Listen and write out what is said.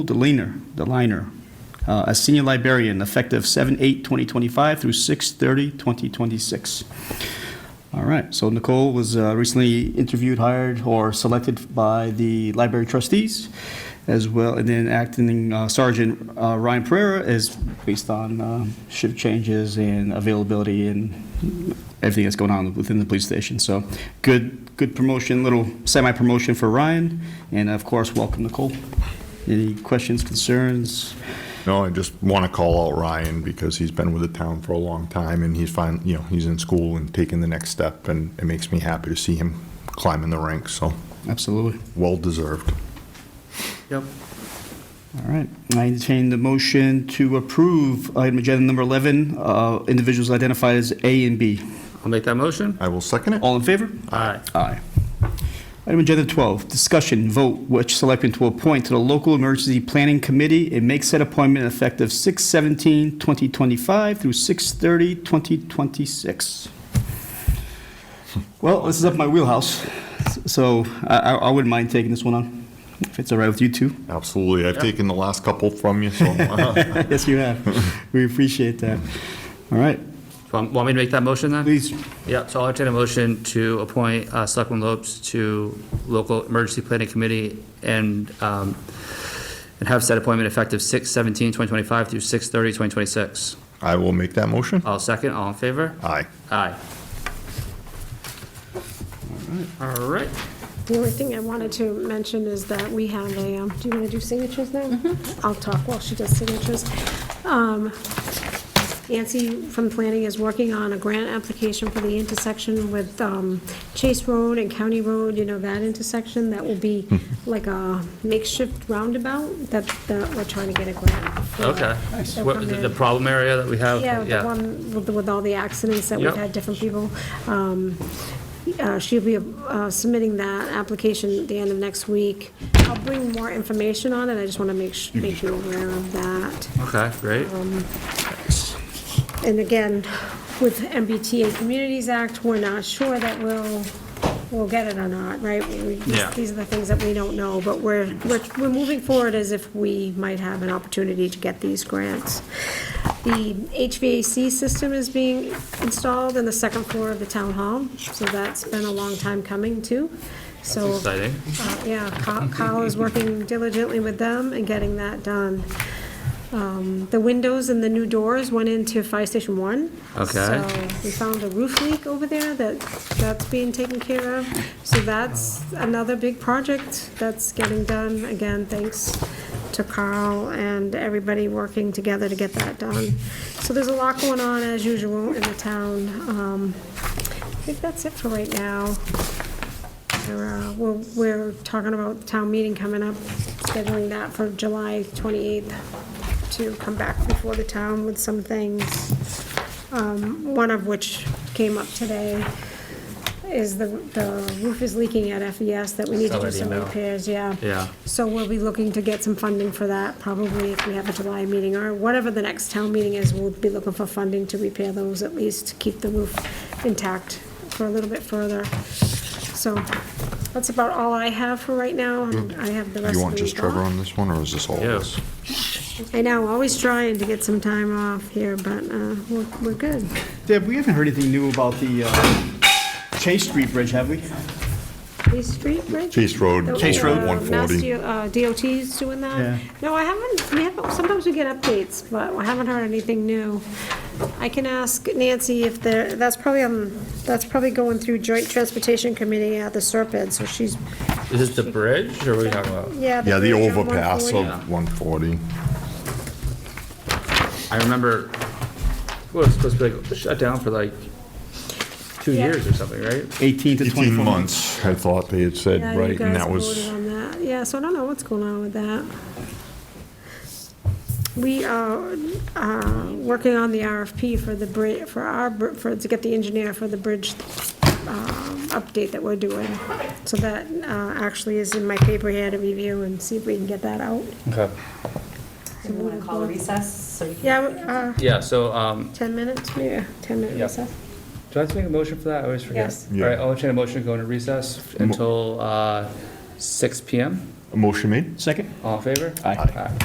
the leaner, the liner, uh, as senior librarian, effective 7/8/2025 through 6/30/2026. All right, so Nicole was uh, recently interviewed, hired, or selected by the library trustees, as well, and then acting uh, Sergeant uh, Ryan Pereira is based on uh, shift changes and availability and everything that's going on within the police station. So good, good promotion, little semi-promotion for Ryan, and of course, welcome Nicole. Any questions, concerns? No, I just want to call out Ryan because he's been with the town for a long time and he's fine, you know, he's in school and taking the next step and it makes me happy to see him climbing the ranks, so Absolutely. well deserved. Yep. All right, I entertain the motion to approve item agenda number 11, uh, individuals identified as A and B. I'll make that motion. I will second it. All in favor? Aye. Aye. Item agenda 12, discussion, vote, which selectmen to appoint to the local emergency planning committee and make said appointment effective 6/17/2025 through 6/30/2026. Well, this is up my wheelhouse, so I I- I wouldn't mind taking this one on, if it's all right with you two. Absolutely. I've taken the last couple from you, so Yes, you have. We appreciate that. All right, Want want me to make that motion then? please, Yeah, so I'll entertain a motion to appoint uh, Selectman Lopes to local emergency planning committee and, um, and have said appointment effective 6/17/2025 through 6/30/2026. I will make that motion. I'll second, all in favor? Aye. Aye. All right. The only thing I wanted to mention is that we have a, um, do you want to do signatures now? I'll talk while she does signatures. Um, Nancy from Planning is working on a grant application for the intersection with um, Chase Road and County Road, you know, that intersection, that will be Hmm. like a makeshift roundabout that, that we're trying to get a grant for. Okay. They'll What, come the the in. problem area that we have? Yeah, the one with, with all the accidents that we've Yep. had, different people. Um, uh, She'll be uh, submitting that application at the end of next week. I'll bring more information on it, I just want to make, sh- make you aware of that. Okay, great. Um, And again, with MBTA Communities Act, we're not sure that we'll, we'll get it or not, right? We- we- Yeah. These are the things that we don't know, but we're, we're, we're moving forward as if we might have an opportunity to get these grants. The HVAC system is being installed in the second floor of the town hall, so that's been a long time coming too. So, Exciting. uh, yeah, Kyle- Kyle is working diligently with them and getting that done. Um, The windows and the new doors went into Fire Station One. Okay. So we found a roof leak over there that, that's being taken care of. So that's another big project that's getting done, again, thanks to Carl and everybody working together to get that done. So there's a lot going on as usual in the town. Um, I think that's it for right now. We're, uh, We're, we're talking about the town meeting coming up, scheduling that for July 28th to come back before the town with some things, um, one of which came up today, is the, the roof is leaking at FES that we need to Saw do that some email. repairs, yeah. Yeah. So we'll be looking to get some funding for that, probably if we have a July meeting, or whatever the next town meeting is, we'll be looking for funding to repair those, at least to keep the roof intact for a little bit further. So that's about all I have for right now. I have the rest of the Mm. You want just week Trevor off. on this one or is this all of Yeah. us? I know, always trying to get some time off here, but uh, we're we're good. Deb, we haven't heard anything new about the uh, Chase Street Bridge, have we? East Street Bridge? Chase Road. Chase Road. Uh, One Mass forty. D- uh, DOT's doing Yeah. that? No, I haven't, we haven't, sometimes we get updates, but I haven't heard anything new. I can ask Nancy if there, that's probably, um, that's probably going through Joint Transportation Committee at the Serpent, so she's, Is this the bridge or are we talking about? yeah. Yeah, the bridge on overpass 140. of one forty. I remember, well, it's supposed to be like shut down for like two Yeah. years or something, right? 18 to 24 Eighteen months. months, I thought they had said, Yeah, you right, and guys that was, voted on that. Yeah, so I don't know what's going on with that. We are uh, working on the RFP for the bridge, for our, br- for, to get the engineer for the bridge um, update that we're doing. So that uh, actually is in my paper here to review and see if we can get that out. Okay. Do you want to call a recess? so you can- Yeah, uh, Yeah, so, um, 10 minutes, yeah, 10 minutes. Yeah. recess. do I have to make a motion for that? I always forget. Yes. All Yeah. right, I'll entertain a motion to go into recess until, uh, six PM. Motion made? Second? All in favor? Aye. Aye.